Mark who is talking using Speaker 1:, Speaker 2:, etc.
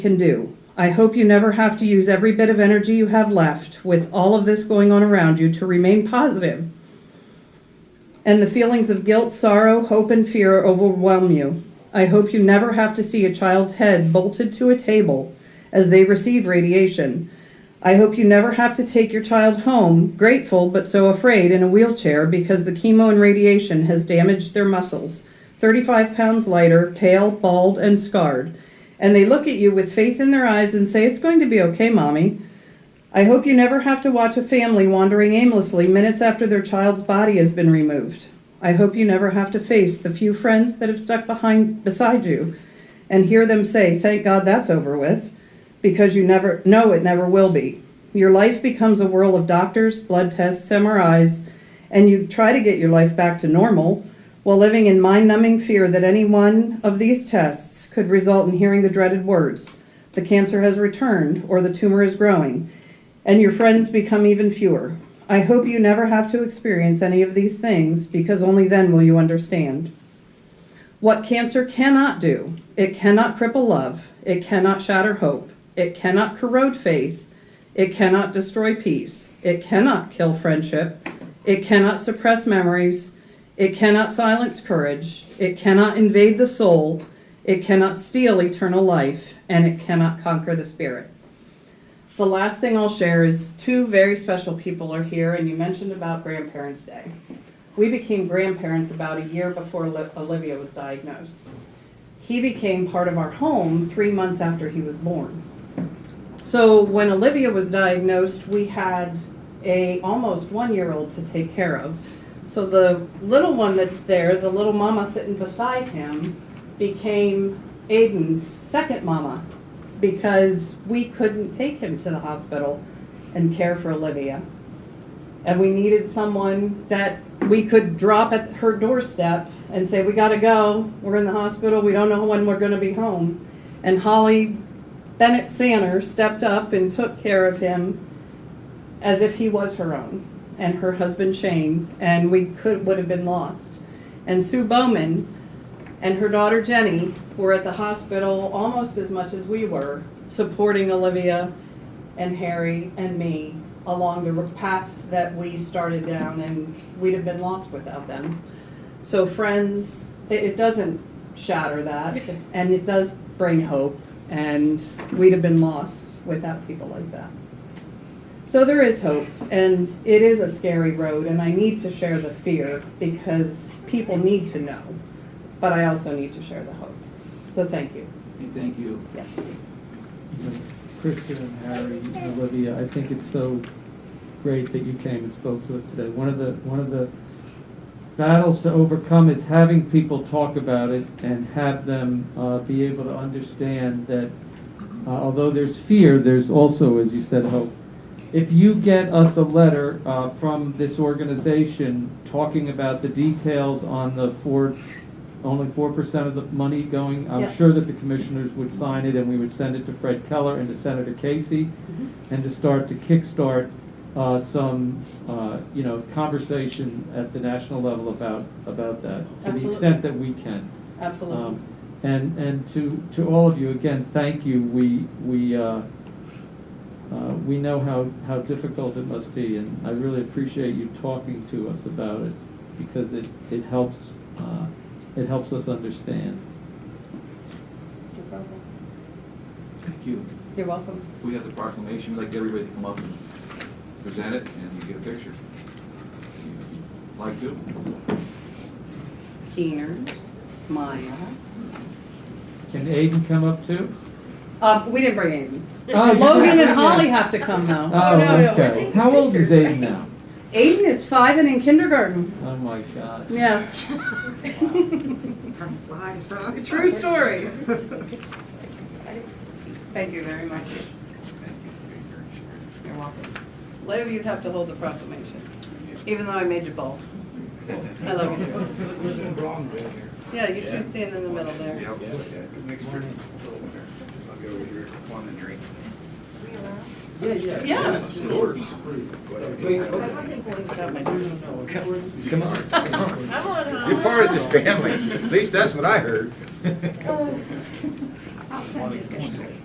Speaker 1: can do. I hope you never have to use every bit of energy you have left with all of this going on around you to remain positive and the feelings of guilt, sorrow, hope, and fear overwhelm you. I hope you never have to see a child's head bolted to a table as they receive radiation. I hope you never have to take your child home, grateful but so afraid, in a wheelchair because the chemo and radiation has damaged their muscles. 35 pounds lighter, pale, bald, and scarred. And they look at you with faith in their eyes and say, It's going to be okay, mommy. I hope you never have to watch a family wandering aimlessly minutes after their child's body has been removed. I hope you never have to face the few friends that have stuck behind beside you and hear them say, "Thank God that's over with," because you never know it never will be. Your life becomes a whirl of doctors, blood tests, MRIs, and you try to get your life back to normal while living in mind-numbing fear that any one of these tests could result in hearing the dreaded words, "The cancer has returned," or "The tumor is growing." and your friends become even fewer. I hope you never have to experience any of these things because only then will you understand. What cancer cannot do, it cannot cripple love, it cannot shatter hope, it cannot corrode faith, it cannot destroy peace, it cannot kill friendship, it cannot suppress memories, it cannot silence courage, it cannot invade the soul, it cannot steal eternal life, and it cannot conquer the spirit. The last thing I'll share is two very special people are here, and you mentioned about Grandparents' Day. We became grandparents about a year before Li- Olivia was diagnosed. He became part of our home three months after he was born. So when Olivia was diagnosed, we had a almost one-year-old to take care of. So the little one that's there, the little mama sitting beside him, became Aiden's second mama because we couldn't take him to the hospital and care for Olivia. And we needed someone that we could drop at her doorstep and say, we gotta go, we're in the hospital, we don't know when we're gonna be home. And Holly Bennett Sanner stepped up and took care of him as if he was her own and her husband Shane, and we could, would have been lost. And Sue Bowman, and her daughter Jenny were at the hospital almost as much as we were, supporting Olivia and Harry and me along the path that we started down, and we'd have been lost without them. So friends, it, it doesn't shatter that, and it does bring hope, and we'd have been lost without people like that. So there is hope, and it is a scary road, and I need to share the fear because people need to know, but I also need to share the hope. So thank you.
Speaker 2: Hey, Thank you.
Speaker 1: Yes.
Speaker 3: Kristen and Harry and Olivia, I think it's so great that you came and spoke to us today. One of the, one of the battles to overcome is having people talk about it and have them uh, be able to understand that uh, although there's fear, there's also, as you said, hope. If you get us a letter uh, from this organization talking about the details on the four, only four percent of the money going,
Speaker 1: Yeah.
Speaker 3: I'm sure that the commissioners would sign it and we would send it to Fred Keller and to Senator Casey
Speaker 1: Mm-hmm.
Speaker 3: and to start to kickstart uh, some, uh, you know, conversation at the national level about, about that, to the
Speaker 1: Absolutely.
Speaker 3: extent that we can.
Speaker 1: Absolutely.
Speaker 3: Um, And, and to, to all of you, again, thank you. We, we, uh, uh, we know how, how difficult it must be, and I really appreciate you talking to us about it, because it, it helps, uh, it helps us understand.
Speaker 2: Thank you.
Speaker 1: You're welcome.
Speaker 2: We have the proclamation, we'd like everybody to come up and present it, and you get a picture. If you'd Like to?
Speaker 1: Keeners, Maya.
Speaker 3: Can Aiden come up too?
Speaker 1: Uh, we didn't bring anything.
Speaker 3: Oh, you-
Speaker 1: Logan and Holly have to come though.
Speaker 4: no,
Speaker 3: Oh,
Speaker 4: no, we're
Speaker 3: okay.
Speaker 4: taking
Speaker 3: How old is
Speaker 4: pictures.
Speaker 3: Aiden now?
Speaker 1: Aiden is five and in kindergarten.
Speaker 3: Oh, my God.
Speaker 1: Yes. True story. Thank you very much. You're welcome. Later, you'd have to hold the proclamation, even though I made you both. I love you. Yeah, you two stand in the middle there.
Speaker 5: Yep. Mixture. I'll go over here, want a drink.
Speaker 1: Yeah.
Speaker 2: Yes, of course.
Speaker 4: I wasn't going to.
Speaker 2: Come on.
Speaker 4: I'm on a-
Speaker 5: You're part of this family, at least that's what I heard.
Speaker 4: Oh. I'll send you pictures.